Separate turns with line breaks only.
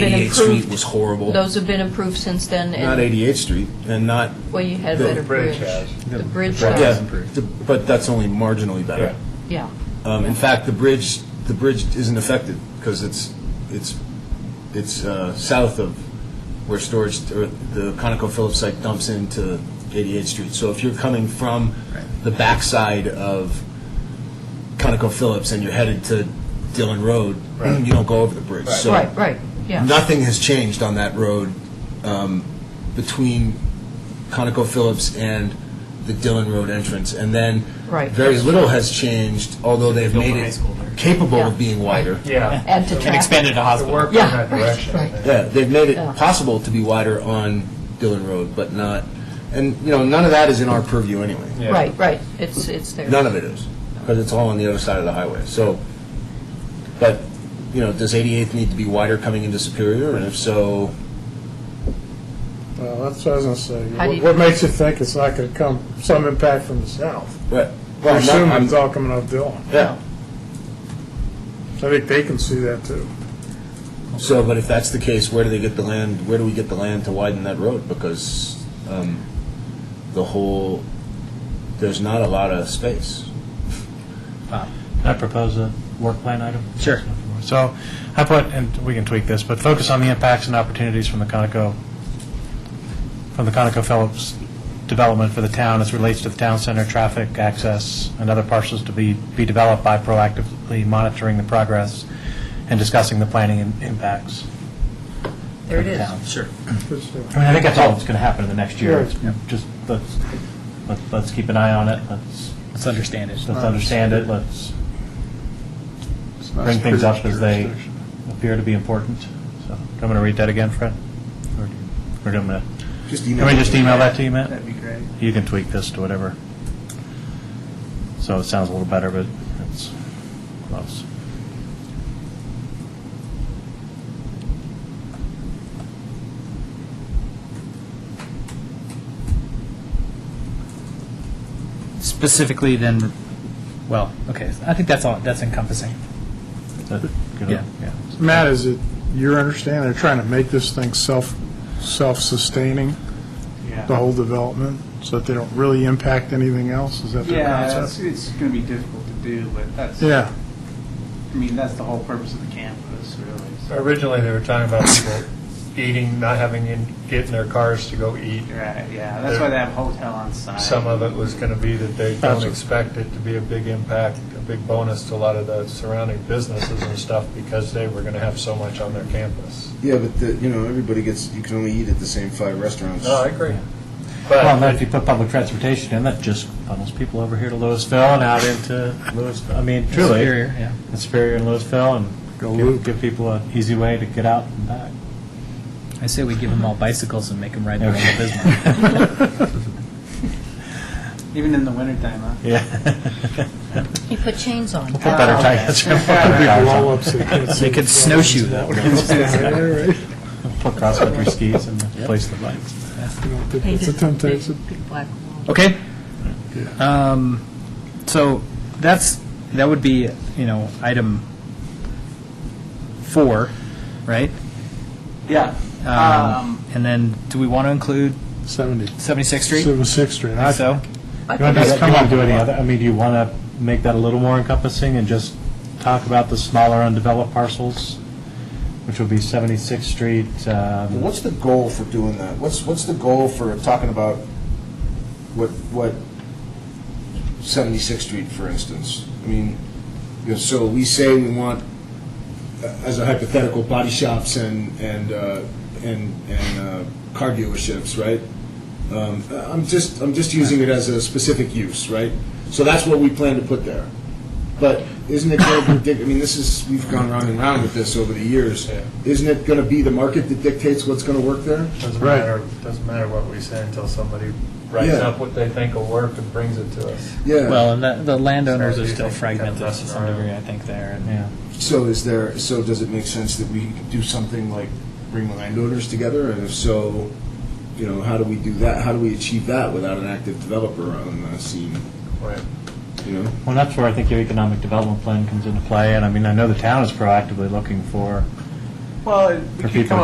Been
88th Street
improved.
was horrible.
Those have been improved since then,
Not
and,
88th Street, and not,
well, you had a
The
better bridge.
bridge has.
The bridge
yeah,
has,
the- but that's only marginally better.
yeah.
Um, In fact, the bridge, the bridge isn't affected, because it's, it's, it's uh, south of where storage, or the ConocoPhillips site dumps into 88th Street. So if you're coming from the backside of ConocoPhillips and you're headed to Dillon Road, you don't go over the bridge. So
Right, right, yeah.
Nothing has changed on that road um, between ConocoPhillips and the Dillon Road entrance. And then
Right.
very little has changed, although they've
Built
made
the high
it
school there.
capable
Yeah.
of being wider.
Yeah.
Add to
And
traffic.
expanded to
The
hospital.
work in
Yeah,
that
right,
direction.
right.
Yeah, they've made it
Yeah.
possible to be wider on Dillon Road, but not, and, you know, none of that is in our purview anyway.
Yeah.
Right, right, it's, it's there.
None of it is, because it's all on the other side of the highway. So, but, you know, does 88th need to be wider coming into Superior? And if so,
Well, that's what I was gonna say.
How do you-
What- What makes you think it's not gonna come, some impact from the south?
right.
I
Well, I'm not-
assume
I'm-
it's all coming off Dillon.
Yeah.
I think they can see that too.
So, but if that's the case, where do they get the land, where do we get the land to widen that road? Because um, the whole, there's not a lot of space.
I propose a work plan item.
Sure.
So I put, and we can tweak this, but focus on the impacts and opportunities from the Conoco, from the ConocoPhillips development for the town as relates to the town center, traffic, access, and other parcels to be, be developed by proactively monitoring the progress and discussing the planning and impacts.
There it
for the
is.
town.
Sure.
It's, uh,
I mean, I think that's all that's going to happen in the next year.
Sure.
It's Just, let's, let's- let's keep an eye on it, let's,
Let's understand it.
let's understand it, let's bring things up as they appear to be important. So, I'm going to read that again, Fred? Or do you- Or do I'm going to,
Just
can we just email that to you, Matt?
That'd be great.
You can tweak this to whatever. So it sounds a little better, but it's close.
Specifically then, well, okay, I think that's all, that's encompassing.
Is that good?
Yeah.
Yeah.
Matt, is it your understanding they're trying to make this thing self, self-sustaining,
Yeah.
the whole development, so that they don't really impact anything else? Is that the
Yeah, it's,
concept?
it's going to be difficult to do, but that's, I
Yeah,
mean, that's the whole purpose of the campus, really. so-
Originally, they were talking about people eating, not having, in get in their cars to go eat.
Right, yeah, that's why they have hotel on site.
Some of it was going to be that they don't expect it to be a big impact, a big bonus to a lot of the surrounding businesses and stuff because they were going to have so much on their campus.
Yeah, but the, you know, everybody gets, you can only eat at the same five restaurants.
No, I agree. But
Well, then if you put public transportation in, that just funnels people over here to Louisville and out into Louisville. I mean, truly.
Superior, yeah.
and Superior and Louisville, and give, give people an easy way to get out and back.
I say we give them all bicycles and make them ride their own
Okay.
business.
Even in the wintertime, huh?
Yeah.
You put chains on.
Put better tires.
big blow-ups. they can't see
They could
themselves.
snowshoe that way.
Yeah, right.
Put cross-country skis and place the bikes.
You know, It's a temptation.
Big black wall.
Okay. Um, So that's, that would be, you know, item four, right?
Yeah.
Um, And then, do we want to include
70,
76th Street?
Seven- Sixth Street. I-
Think so?
I
You want
think
to
that's-
just come on, do any other, I mean, do you want to make that a little more encompassing and just talk about the smaller undeveloped parcels, which would be 76th Street,
Well,
um,
What's the goal for doing that? What's, what's the goal for talking about what, what 76th Street, for instance? I mean, you know, so we say we want, uh, as a hypothetical, body shops and, and, uh, and, and uh, car dealerships, right? Um, I'm just, I'm just using it as a specific use, right? So that's what we plan to put there. But isn't it going to predict, I mean, this is, we've gone round and round with this over the years. Isn't it going to be the market that dictates what's going to work there?
doesn't matter, doesn't matter what we say until somebody writes
Yeah.
up what they think will work and brings it to us.
Yeah.
Well, and the- the landowners
So
are
you
still
think kind of
fragmented to
messing
some
around.
degree, I think, there. and-
yeah.
So is there, so does it make sense that we do something like bring the landowners together? And if so, you know, how do we do that? How do we achieve that without an active developer on the scene,
Right.
you know?
Well, that's where I think your economic development plan comes into play, and I mean, I know the town is proactively looking for
Well, we
For
could
people
come